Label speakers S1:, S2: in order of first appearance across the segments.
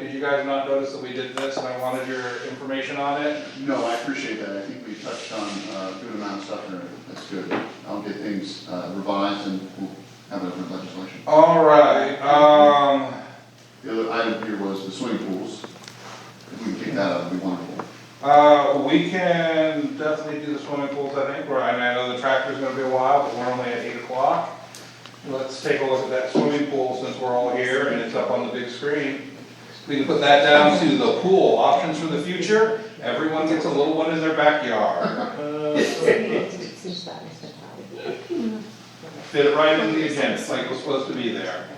S1: Did you guys not notice that we did this and I wanted your information on it?
S2: No, I appreciate that, I think we touched on uh, a good amount of stuff there, that's good. I'll get things uh, revised and we'll have it over in legislation.
S1: All right, um,
S2: The other item here was the swimming pools. If we can kick that out, it'd be wonderful.
S1: uh, we can definitely do the swimming pools, I think, or I mean, I know the tractor's gonna be a while, but we're only at eight o'clock. Let's take a look at that swimming pool since we're all here and it's up on the big screen. We can put that down to the pool, options for the future, everyone gets a little one in their backyard. Fit it right in the agenda, it's like it was supposed to be there.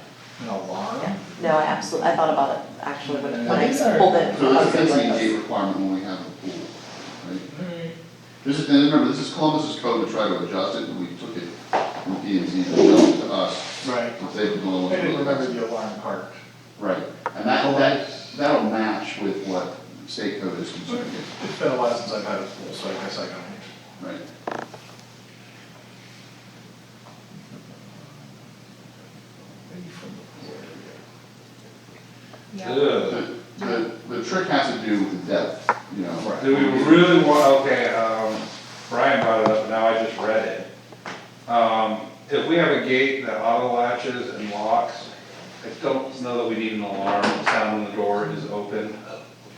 S3: An alarm?
S4: No, I absolutely, I thought about it actually when when
S3: These
S4: I
S3: are-
S4: pulled it.
S2: So
S4: I
S2: this is
S4: was
S2: basically a
S4: like,
S2: gate requirement when we have a pool, right? This is, and remember, this is Columbus's code to try to adjust it, and we took it from P and Z and adjusted it to us.
S3: Right.
S2: If they could go
S3: I
S2: along with
S3: didn't
S2: it.
S3: remember the alarm part.
S2: Right, and that, that, that'll match with what state code is concerned with.
S3: It's been a while since I've had a pool, so I guess I don't.
S2: Right.
S3: Maybe from the pool area.
S1: Ugh.
S2: The, the, the trick has to do with depth, you know.
S3: Right.
S1: Do we really want, okay, um, Brian brought it up, now I just read it. Um, if we have a gate that auto latches and locks, I don't know that we need an alarm, the sound when the door is open.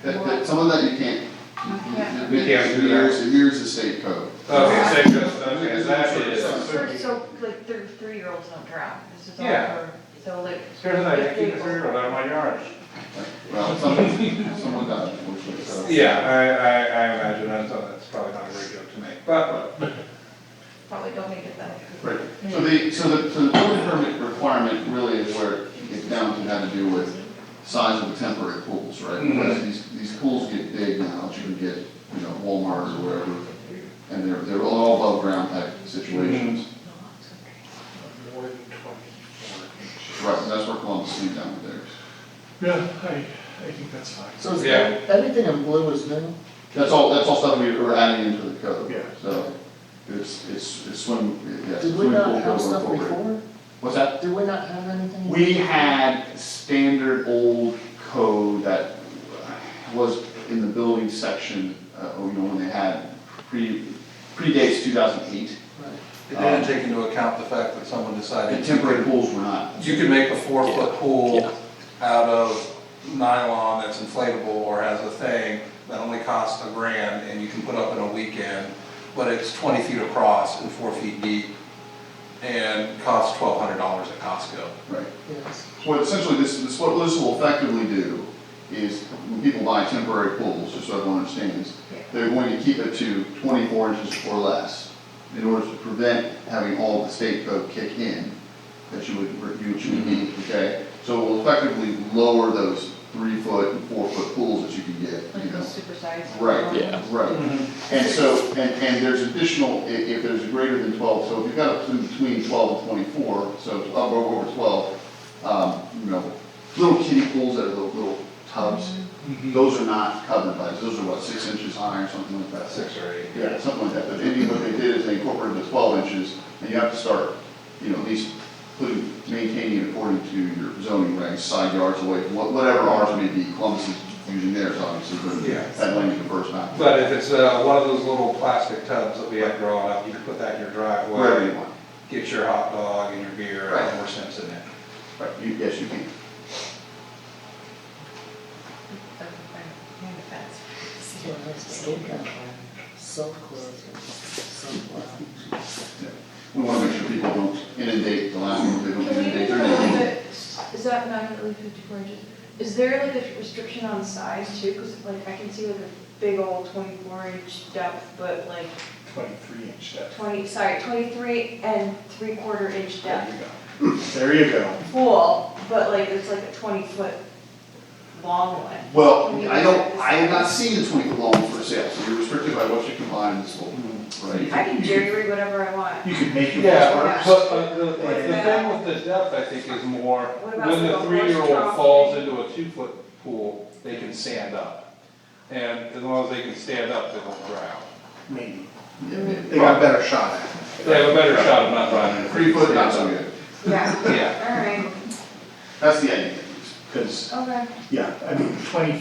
S2: That, that, some of that you can't.
S5: Okay.
S1: We can't do that.
S2: Here's, here's the state code.
S1: Okay, so, just- okay, that is,
S5: So, so like three, three-year-olds don't drown, this is all
S1: Yeah.
S5: for, so like.
S1: here's an idea, keep a zero out of my yard.
S2: Well, some, someone got it, unfortunately, so.
S1: Yeah, I, I, I imagine that's, that's probably not a great joke to make, but,
S5: Probably don't make it that.
S2: Right, so the, so the, so the building permit requirement really is where it gets down to how to do with size of the temporary pools, right?
S1: Mhm.
S2: Because these, these pools get big now, that you can get, you know, Walmart or wherever, and they're, they're all above ground type
S1: Mm-hmm.
S2: situations.
S3: More than twenty-four inches.
S2: Right, and that's where Columbus came down with theirs.
S3: Yeah, I, I think that's fine.
S6: So is
S1: Yeah.
S6: ev- everything in blue is new?
S2: That's all, that's all stuff we were adding into the code.
S3: Yeah.
S2: So, it's, it's, it's swim, yeah.
S6: Did we
S2: swimming pool code
S6: not have stuff
S2: going forward.
S6: before?
S2: What's that?
S6: Did we not have anything?
S2: We had standard old code that was in the building section, uh, you know, when they had pre, predates two thousand eight.
S6: Right.
S7: It didn't take into account the fact that someone
S2: The
S7: decided
S2: temporary pools were not.
S7: you could make a four-foot pool out of nylon that's inflatable or has a thing that only costs a grand and you can put up in a weekend, but it's twenty feet across and four feet deep and costs twelve hundred dollars at Costco.
S2: Right.
S6: Yes.
S2: What essentially this, this, what this will effectively do is, when people buy temporary pools, just so everyone understands, they're going to keep it to twenty-four inches or less in order to prevent having all the state code kick in that you would, you would need, okay? So it will effectively lower those three-foot and four-foot pools that you can get, you
S5: Like
S2: know?
S5: those supersized.
S2: Right, right.
S1: Mm-hmm.
S2: And so, and, and there's additional, i- if there's greater than twelve, so if you've got up to between twelve and twenty-four, so it's up over over twelve, um, you know, little kiddie pools that are little, little tubs,
S1: Mm-hmm.
S2: those are not covered by, this. those are what, six inches high or something like that?
S1: six or eight.
S2: Yeah, something like that, but maybe what they did is they incorporated the twelve inches, and you have to start, you know, at least putting, maintaining it according to your zoning regs, side yards away, wha- whatever ours may be, Columbus is using theirs, obviously,
S1: Yeah.
S2: but that language the first time.
S1: But if it's, uh, one of those little plastic tubs that we have growing up, you can put that in your driveway.
S2: Wherever you want.
S1: Get your hot dog and your beer,
S2: Right.
S1: and more sense in it.
S2: Right, you, yes, you can.
S5: Behind the fence.
S6: So it has to stay that way. Self-closing, self-lounge.
S2: We want to make sure people don't inundate the landlord, they don't
S5: Can we,
S2: inundate
S5: do
S2: their
S5: like
S2: neighborhood.
S5: a- is that not really fifty-four inches? Is there like a restriction on size too? Cause like I can see like a big old twenty-four inch depth, but like
S3: Twenty-three inch depth.
S5: twenty, sorry, twenty-three and three-quarter inch
S3: There
S5: depth.
S3: you go. There you go.
S5: Full, but like it's like a twenty-foot long one.
S2: Well,
S5: Can we
S2: I don't,
S5: do
S2: I have not seen the twenty foot long for sale, so you're restricted by what you can buy in this whole, right?
S5: I can jerry rig whatever I want.
S3: You could make your.
S1: Yeah,
S5: Yeah.
S1: but, but the, like, the thing with the depth, I think, is more,
S5: What about
S1: when
S5: the
S1: the
S5: horse
S1: three-year-old
S5: trough?
S1: falls into a two-foot pool, they can stand up. And as long as they can stand up, they won't drown.
S3: Maybe.
S2: Yeah, maybe.
S3: They got a better shot at it.
S1: They have a better shot of not drowning. if they
S2: Three foot, not so
S1: stand up.
S2: good.
S5: Yeah,
S1: Yeah,
S5: all right.
S2: That's the idea. at least.
S3: because,
S8: Okay.
S3: yeah, I mean, twenty